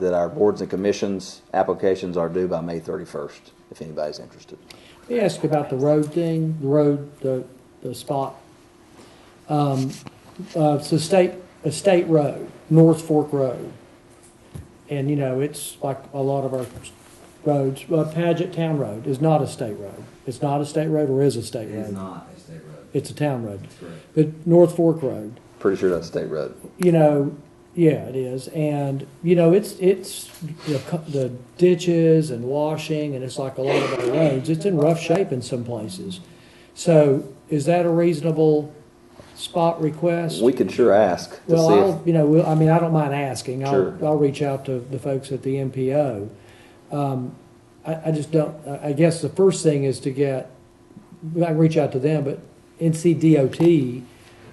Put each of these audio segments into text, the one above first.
that our boards and commissions applications are due by May 31st, if anybody's interested. Let me ask you about the road thing, the road, the, the spot. Um, uh, it's a state, a state road, North Fork Road. And, you know, it's like a lot of our roads, uh, Paget Town Road is not a state road. It's not a state road or is a state It is road? not a state road. It's a town road. That's correct. But North Fork Road, Pretty sure that's state road. you know, yeah, it is, and you know, it's it's the, co- the ditches and washing, and it's like a lot of our roads. It's in rough shape in some places. So, is that a reasonable spot request? We can sure ask to well, see if I'll you know, we'll, I mean, I don't mind asking. Sure. I'll I'll reach out to the folks at the MPO. Um, I, I just don't. I I guess the first thing is to get. I can reach out to them, but NCDOT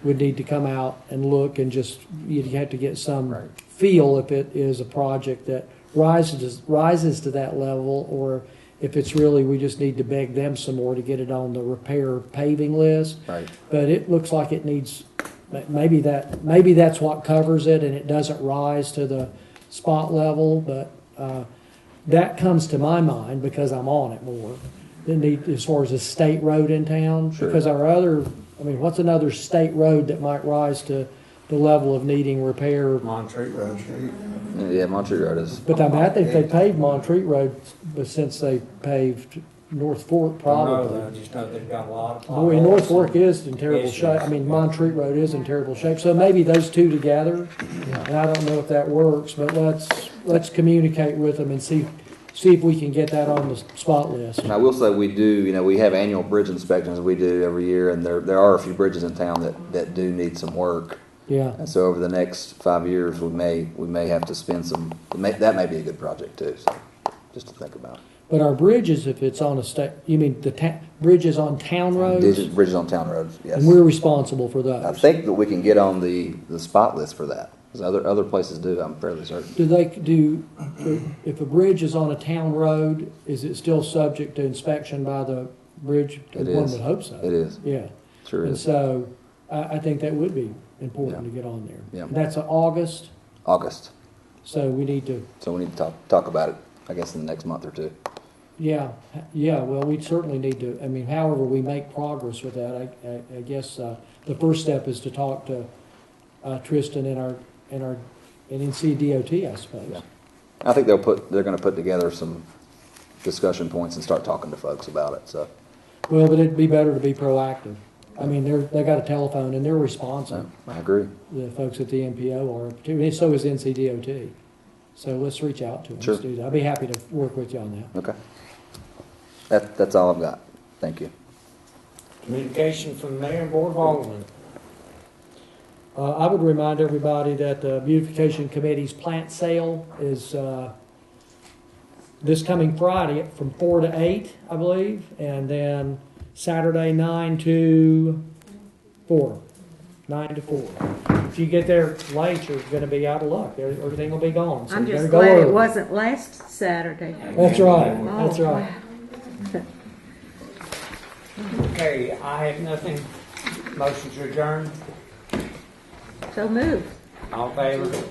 would need to come out and look and just, you'd have to get some feel if it is a project that rises, rises to that level, or if it's really, we just need to beg them some more to get it on the repair paving list. Right. But it looks like it needs, ma- maybe that, maybe that's what covers it, and it doesn't rise to the spot level, but, uh, that comes to my mind because I'm on it more than the, as far as a state road in town. Sure. Because our other, I mean, what's another state road that might rise to the level of needing repair? Montreat Road. Yeah, Montreat Road is, But I mean, I think they paved Montreat Road, but since they paved North Fork, I probably. just know they've got a lot of. Boy, North Fork is in terrible Issues. shape, I mean, Montreat Road is in terrible shape, so maybe those two together. And I don't know if that works, but let's, let's communicate with them and see, see if we can get that on the spot list. and I will say we do, you know, we have annual bridge inspections we do every year, and there, there are a few bridges in town that, that do need some work. Yeah. And so over the next five years, we may, we may have to spend some, it may- that may be a good project too, so, just to think about. But our bridges, if it's on a state, you mean the ta- bridges on town roads? Bridges, bridges on town roads, yes. And we're responsible for I those. think that we can get on the, the spot list for that, because other, other places do, I'm fairly certain. Do they, do, if a bridge is on a town road, is it still subject to inspection by the bridge? It One is. would hope so. It is, Yeah. sure And is. so I, I think that would be important to get on there. Yeah. That's a August, August, so we need to, so we need to talk, talk about it, I guess, in the next month or two. yeah, yeah, well, we certainly need to, I mean, however we make progress with that, I, I, I guess, uh, the first step is to talk to, uh, Tristan and our, and our, and NCDOT, I Yeah. suppose. I think they'll put, they're gonna put together some discussion points and start talking to folks about it, so. Well, but it'd be better to be proactive. I mean, they're, they got a telephone and they're responsive, so, I agree, the folks at the MPO are, too, and so is NCDOT. So let's reach out to them. Sure. Let's do that. I'd be happy to work with you on that. okay. That, that's all I've got, thank you. Communication from the mayor and board of aldermen. Uh, I would remind everybody that the beautification committee's plant sale is, uh, this coming Friday from four to eight, I believe, and then Saturday nine to four, nine to four. If you get there late, you're gonna be out of luck. There- Everything will be gone. so I'm you better just go glad it early. wasn't Oh, last Saturday. That's right, that's right. Okay, I have nothing. Motion to adjourn. So move. All in favor?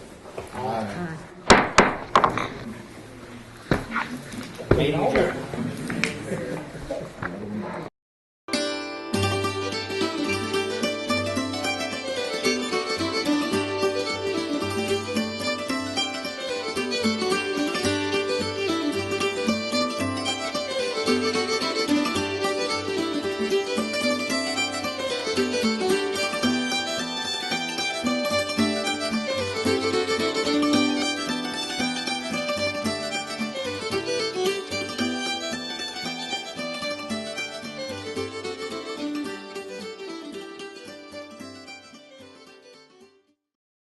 Meeting adjourned.